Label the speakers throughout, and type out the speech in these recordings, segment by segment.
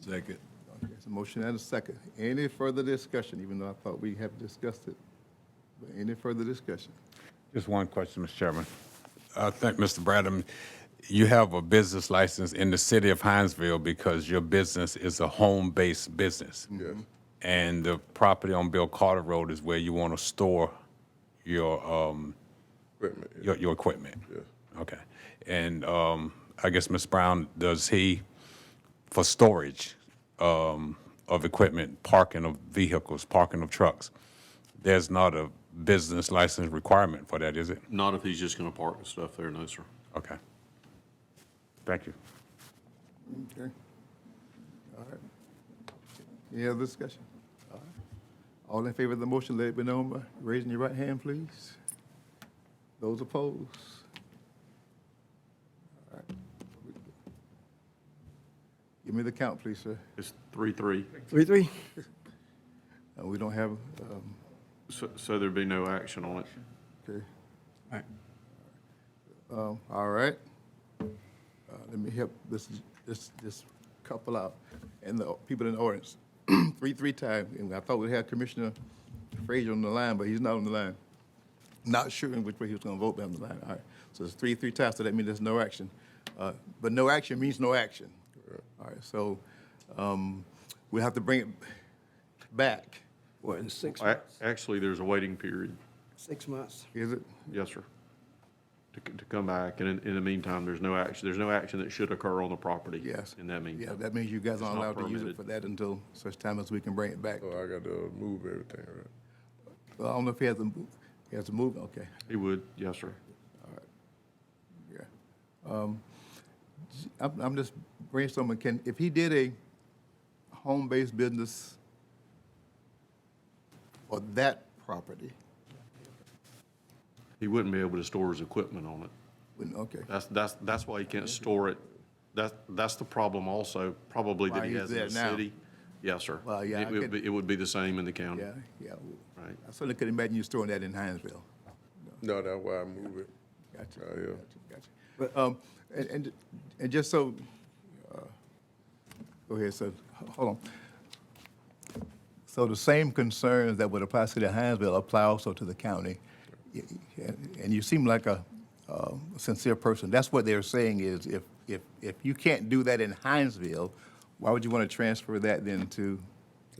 Speaker 1: Second.
Speaker 2: There's a motion and a second. Any further discussion, even though I thought we have discussed it? But any further discussion?
Speaker 3: Just one question, Mr. Chairman. I think, Mr. Bradham, you have a business license in the city of Hinesville because your business is a home-based business. Yes. And the property on Bill Carter Road is where you want to store your, um,
Speaker 1: Equipment, yeah.
Speaker 3: your, your equipment? Okay. And, um, I guess, Ms. Brown, does he, for storage, um, of equipment, parking of vehicles, parking of trucks, there's not a business license requirement for that, is it?
Speaker 4: Not if he's just going to park and stuff there, no, sir.
Speaker 3: Okay. Thank you.
Speaker 2: Okay. All right. Any other discussion? All right. All in favor of the motion, let it be known by raising your right hand, please. Those opposed? All right. Give me the count, please, sir.
Speaker 4: It's three, three.
Speaker 5: Three, three.
Speaker 2: Uh, We don't have, um,
Speaker 4: So, so there'd be no action on it.
Speaker 2: Okay. Um, All right. Uh, Let me help this, this, this couple out and the people in the audience. Three, three times, and I thought we had Commissioner Frazier on the line, but he's not on the line. Not sure in which way he was gonna vote, but on the line, all right. So it's three, three times, so that means there's no action. Uh, But no action means no action. All right, so um, we have to bring it back,
Speaker 5: What, in six,
Speaker 4: A- Actually, there's a waiting period,
Speaker 5: six months?
Speaker 2: is it?
Speaker 4: yes, sir, to, c- to come back. And in, in the meantime, there's no action, there's no action that should occur on the property.
Speaker 2: Yes.
Speaker 4: In that
Speaker 2: Yeah,
Speaker 4: meantime.
Speaker 2: that means you guys aren't allowed
Speaker 4: not
Speaker 2: to use it
Speaker 4: permitted.
Speaker 2: for that until such time as we can bring it back.
Speaker 1: So Oh, I got to move everything, right?
Speaker 2: Well, I don't know if he has to, move- he has to move, okay,
Speaker 4: He would, yes, sir.
Speaker 2: yeah. Um, j- I'm, I'm just brainstorming, can, if he did a home-based business for that property,
Speaker 4: He wouldn't be able to store his equipment on it.
Speaker 2: wouldn't- okay.
Speaker 4: That's, that's, that's why he can't store it. That, that's the problem also, probably
Speaker 2: Why
Speaker 4: that he
Speaker 2: he's
Speaker 4: has in
Speaker 2: there
Speaker 4: the
Speaker 2: now.
Speaker 4: city. Yes, sir.
Speaker 2: Well, yeah,
Speaker 4: It
Speaker 2: I
Speaker 4: would
Speaker 2: could-
Speaker 4: be, it would be the same in the county.
Speaker 2: Yeah, yeah.
Speaker 4: Right.
Speaker 2: I certainly couldn't imagine you storing that in Hinesville.
Speaker 1: No, that's why I move it.
Speaker 2: Gotcha.
Speaker 1: Oh, yeah.
Speaker 2: Gotcha, gotcha. Um, and, and, and just so, uh, go ahead, so, h- hold on. So the same concerns that would apply to the Hinesville apply also to the county. Y- y- And you seem like a, uh sincere person. That's what they're saying is if, if, if you can't do that in Hinesville, why would you want to transfer that then to,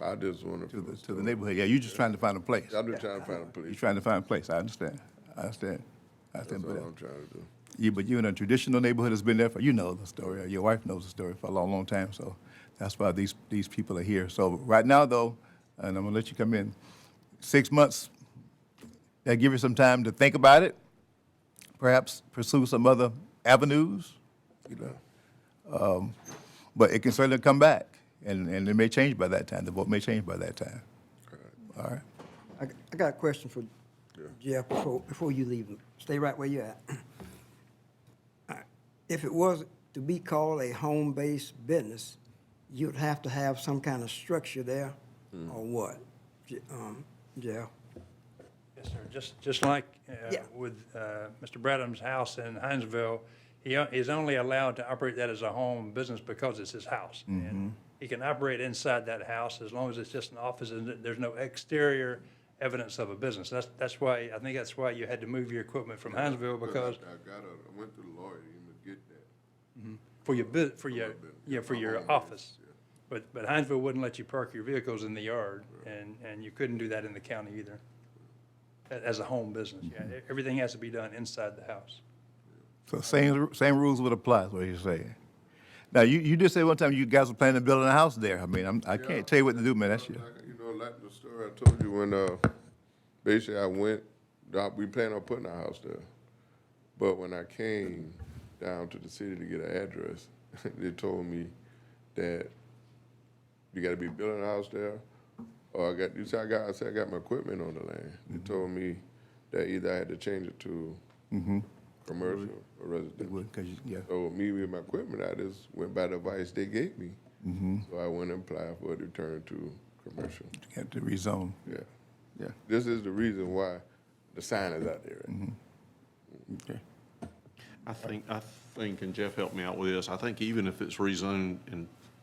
Speaker 1: I just want
Speaker 2: to the,
Speaker 1: to,
Speaker 2: to the neighborhood? Yeah, you're just trying to find a place.
Speaker 1: I'm just trying to find a
Speaker 2: You're
Speaker 1: place.
Speaker 2: trying to find a place. I understand. I understand. I
Speaker 1: That's
Speaker 2: understand.
Speaker 1: all
Speaker 2: but- uh,
Speaker 1: I'm trying to do.
Speaker 2: you, but you in a traditional neighborhood that's been there for, you know the story, or your wife knows the story for a long, long time, so that's why these, these people are here. So right now, though, and I'm gonna let you come in, six months, that give you some time to think about it, perhaps pursue some other avenues, you know. Um, But it can certainly come back, and, and it may change by that time, the vote may change by that time. All right?
Speaker 5: I, I got a question for Jeff before, before you leave. Stay right where you're at. Uh, If it was to be called a home-based business, you'd have to have some kind of structure there, or what? Je- Um, Jeff?
Speaker 6: Yes, sir. Just, just like uh,
Speaker 5: Yeah.
Speaker 6: with uh, Mr. Bradham's house in Hinesville, he o- is only allowed to operate that as a home business because it's his house. And he can operate inside that house as long as it's just an office and th- there's no exterior evidence of a business. That's, that's why, I think that's why you had to move your equipment from Hinesville because
Speaker 1: I got a, I went to the lawyer, you to get that.
Speaker 6: for your, bu- for your, yeah, for your office. But, but Hinesville wouldn't let you park your vehicles in the yard and, and you couldn't do that in the county either. a- As a home business, yeah. E- Everything has to be done inside the house.
Speaker 2: So same, same rules would apply, is what you're saying. Now, you, you did say one time you guys were planning on building a house there. I mean, I'm, I can't tell you what to do, man, that's your,
Speaker 1: Like, You know, like the story I told you when, uh, basically I went, uh, we planned on putting a house there. But when I came down to the city to get an address, they told me that you gotta be building a house there. Or I got, you see, I got, I said, I got my equipment on the land. They told me that either I had to change it to commercial or residential.
Speaker 2: because, yeah.
Speaker 1: So me with my equipment, I just went by the advice they gave me. So I went and applied for a return to commercial.
Speaker 2: Had to rezone.
Speaker 1: Yeah.
Speaker 2: Yeah.
Speaker 1: This is the reason why the sign is out there. right?
Speaker 4: I think, I think, and Jeff helped me out with this, I think even if it's rezoned and